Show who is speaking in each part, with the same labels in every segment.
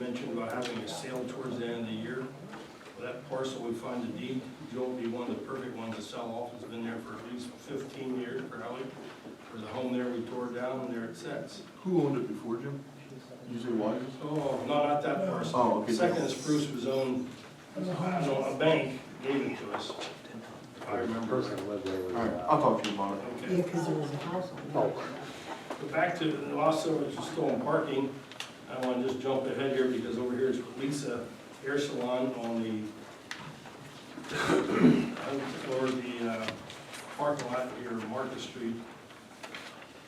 Speaker 1: mentioned about having a sale towards the end of the year. That parcel, we find the deed, Joe would be one of the perfect ones to sell off, it's been there for at least fifteen years probably. There's a home there we tore down and there it sits.
Speaker 2: Who owned it before, Jim? You say Wise?
Speaker 1: Oh, not at that parcel.
Speaker 2: Oh, okay.
Speaker 1: Second is Bruce was owned, I don't know, a bank gave it to us, if I remember. right.
Speaker 2: All right, I'll talk to you about it.
Speaker 1: Okay.
Speaker 3: Yeah, because there was a house on
Speaker 1: But back to, and also, which is still in parking, I want to just jump ahead here because over here is Lisa Hair Salon on the, or the uh, parking lot here, Market Street.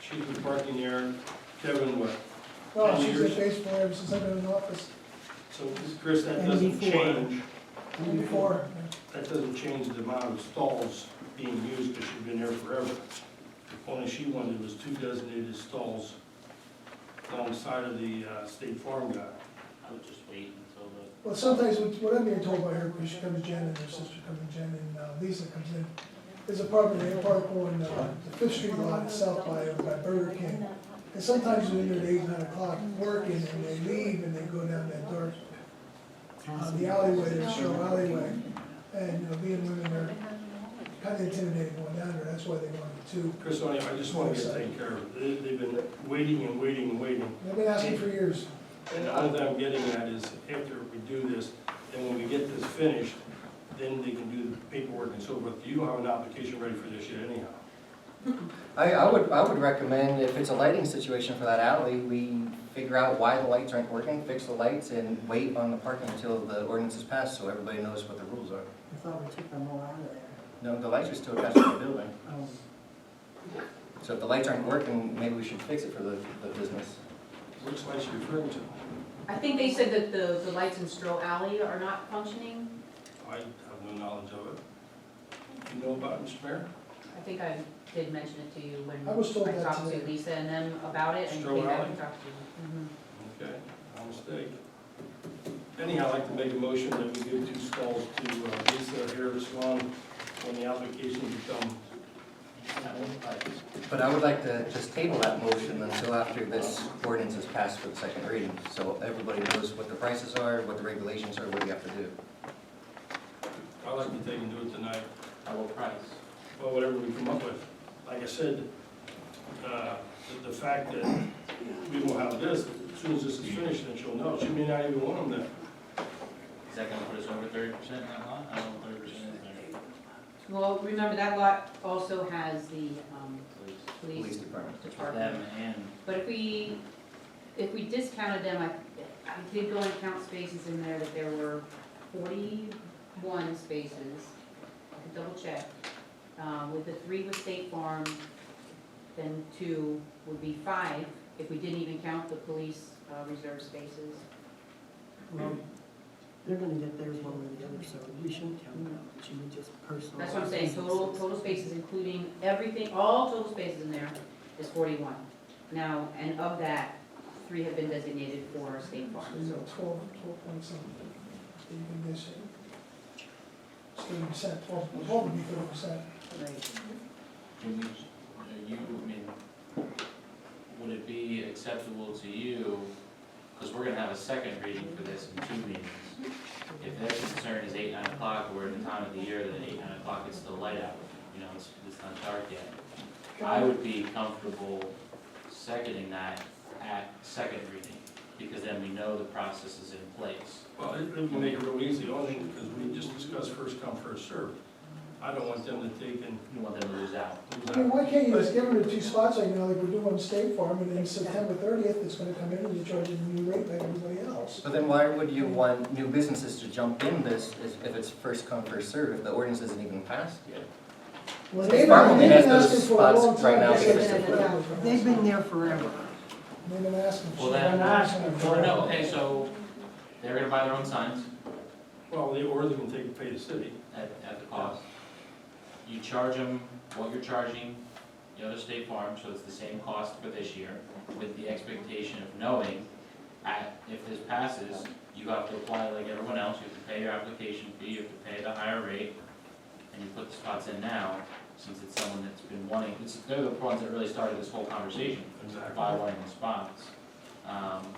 Speaker 1: She's been parking there, Kevin, what?
Speaker 4: No,
Speaker 1: Ten
Speaker 4: she's
Speaker 1: years.
Speaker 4: at base for him since I've been in office,
Speaker 1: So, Chris, that
Speaker 3: And
Speaker 1: doesn't
Speaker 3: before.
Speaker 1: change,
Speaker 4: and before.
Speaker 1: that doesn't change the amount of stalls being used because she's been there forever. Only she wanted was two designated stalls alongside of the uh, State Farm guy.
Speaker 5: I would just wait until the,
Speaker 4: Well, sometimes what what I'm being told by her, because she comes to Jen and her sister comes to Jen and uh, Lisa comes in, is a property they park on uh, the Fifth Street lot itself by, by Burger King. And sometimes when they're at eight, nine o'clock working and they leave and they go down that dark, uh, the alleyway, that show alleyway. And, you know, being women are kind of intimidated going down there, that's why they wanted two.
Speaker 1: Chris, I I just want to get taken care of. They- They've been waiting and waiting and waiting.
Speaker 4: They've been asking for years.
Speaker 1: And all that I'm getting at is after we do this, then when we get this finished, then they can do the paperwork and so forth. You don't have an application ready for this yet anyhow.
Speaker 6: I, I would, I would recommend, if it's a lighting situation for that alley, we figure out why the lights aren't working, fix the lights, and wait on the parking until the ordinance is passed, so everybody knows what the rules are.
Speaker 3: I thought we took them all out of there.
Speaker 6: No, the lights are still attached to the building,
Speaker 4: Um,
Speaker 3: Oh,
Speaker 6: so if the lights aren't working, maybe we should fix it for the, the business.
Speaker 1: Which lights are you referring to?
Speaker 7: I think they said that the, the lights in Stroh Alley are not functioning.
Speaker 1: I have no knowledge of it. You know about it, Mr. Mayor?
Speaker 7: I think I did mention it to you when
Speaker 4: I was told
Speaker 7: I
Speaker 4: that
Speaker 7: talked
Speaker 4: today.
Speaker 7: to Lisa and them about it and
Speaker 1: Stroh
Speaker 7: came back
Speaker 1: Alley?
Speaker 7: and talked to you.
Speaker 1: Okay, my mistake. Anyhow, I'd like to make a motion that we give two stalls to uh, Lisa Hair Salon when the application becomes
Speaker 5: that one, but
Speaker 6: But I would like to just table that motion until after this ordinance is passed for the second reading, so everybody knows what the prices are, what the regulations are, what we have to do.
Speaker 1: I'd like to take and do it tonight,
Speaker 5: I will price.
Speaker 1: well, whatever we come up with. Like I said, uh, the the fact that we will have this, as soon as this is finished, then she'll know. She may not even want them
Speaker 5: Is that gonna put us over thirty percent in that lot? I don't know, thirty percent is there.
Speaker 7: Mhm. Well, remember that lot also has the, um,
Speaker 5: Please.
Speaker 6: Police
Speaker 7: police
Speaker 6: department.
Speaker 7: department.
Speaker 5: Them and,
Speaker 7: But if we, if we discounted them, I, I did go and count spaces in there, that there were forty-one spaces. I could double check. Uh, with the three with State Farm, then two would be five, if we didn't even count the police, uh, reserve spaces.
Speaker 3: Well, Um, they're gonna get theirs one way or the other, so we shouldn't count them out, but you would just personally.
Speaker 7: That's what I'm saying, total, total spaces, including everything, all total spaces in there is forty-one. Now, and of that, three have been designated for State
Speaker 4: So,
Speaker 7: Farm,
Speaker 4: you
Speaker 7: so
Speaker 4: know, twelve, twelve point something, even this, thirty percent, twelve, twelve would be thirty percent.
Speaker 5: can we, are you, I mean, would it be acceptable to you, because we're gonna have a second reading for this in two meetings. If their concern is eight, nine o'clock, or in the time of the year that eight, nine o'clock it's still light out, you know, it's, it's not dark yet. I would be comfortable seconding that at second reading, because then we know the process is in place.
Speaker 1: Well, it it would make it real easy, only because we just discussed first come, first served. I don't want them to take and
Speaker 5: You want them to lose out.
Speaker 1: lose
Speaker 4: I
Speaker 1: out.
Speaker 4: mean, why can't you just give them the two spots right now, like we're doing on State Farm, and then September thirtieth, it's gonna come in and you charge a new rate like everybody else.
Speaker 6: But then why would you want new businesses to jump in this if- if it's first come, first served, if the ordinance isn't even passed yet?
Speaker 4: Well,
Speaker 6: State
Speaker 4: they've
Speaker 6: Farm
Speaker 4: been,
Speaker 6: only
Speaker 4: they've
Speaker 6: has
Speaker 4: been
Speaker 6: those
Speaker 4: asking for a
Speaker 6: spots
Speaker 4: long
Speaker 6: right
Speaker 4: time.
Speaker 6: now
Speaker 7: for September.
Speaker 3: They've been there forever.
Speaker 4: They've been asking.
Speaker 5: Well,
Speaker 4: They've
Speaker 5: then-
Speaker 4: been asking for
Speaker 5: Or
Speaker 4: it.
Speaker 5: no, okay, so they're gonna buy their own signs
Speaker 1: Well, they- or they can take and pay the city.
Speaker 5: at, at the cost. You charge them what you're charging the other state farm, so it's the same cost for this year, with the expectation of knowing at, if this passes, you have to apply like everyone else, you have to pay your application fee, you have to pay the higher rate, and you put the spots in now, since it's someone that's been wanting, it's, they're the ones that really started this whole conversation
Speaker 1: Exactly.
Speaker 5: by wanting the spots. Um,